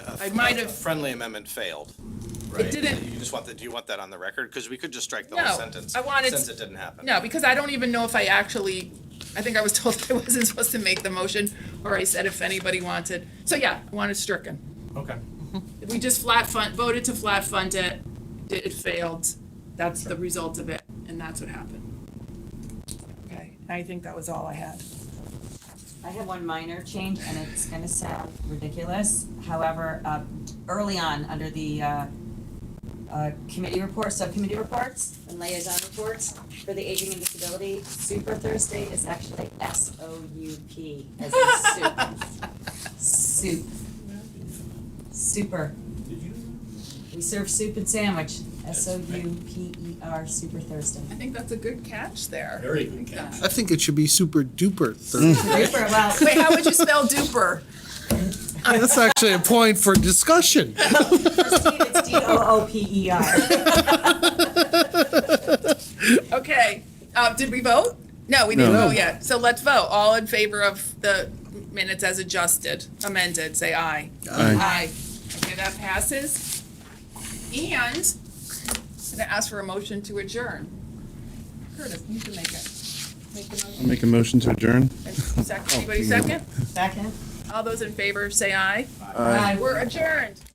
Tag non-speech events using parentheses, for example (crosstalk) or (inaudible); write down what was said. I might a have, Friendly amendment failed, right? didn't- You just want the, do you want that on the record? Because we could just strike the No, whole sentence. I wanted- Since it didn't happen. no, because I don't even know if I actually, I think I was (laughs) told I wasn't supposed to make the motion, or I said if anybody wanted. So yeah, I wanted stricken. Okay. We just flat fund, voted to flat fund it, it it failed, that's the result of it, and that's what happened. Okay, I think that was all I had. I have one minor change and it's gonna sound ridiculous. However, uh, early on, under the, uh, uh, committee reports, subcommittee reports and liaison reports for the aging and disability, Super Thursday is actually S O U P as in soup. Soup. Super. We serve soup and sandwich, S O U P E R, Super Thursday. I think that's a good catch there. Very good catch. I think it should be super duper Thursday. Super, well, Wait, how would you spell duper? (laughs) That's actually a point for discussion. it's D O O P E R. Okay, uh, did we vote? No, we didn't vote yet, so let's vote, all in favor of the minutes as adjusted, amended, say aye. Aye. Okay, that passes. And I'm gonna ask for a motion to adjourn. Curtis, you can (laughs) make it. Make the motion. Make a motion to adjourn? Oh, Second, anybody second? Second? All those in favor, say aye. Aye. We're adjourned.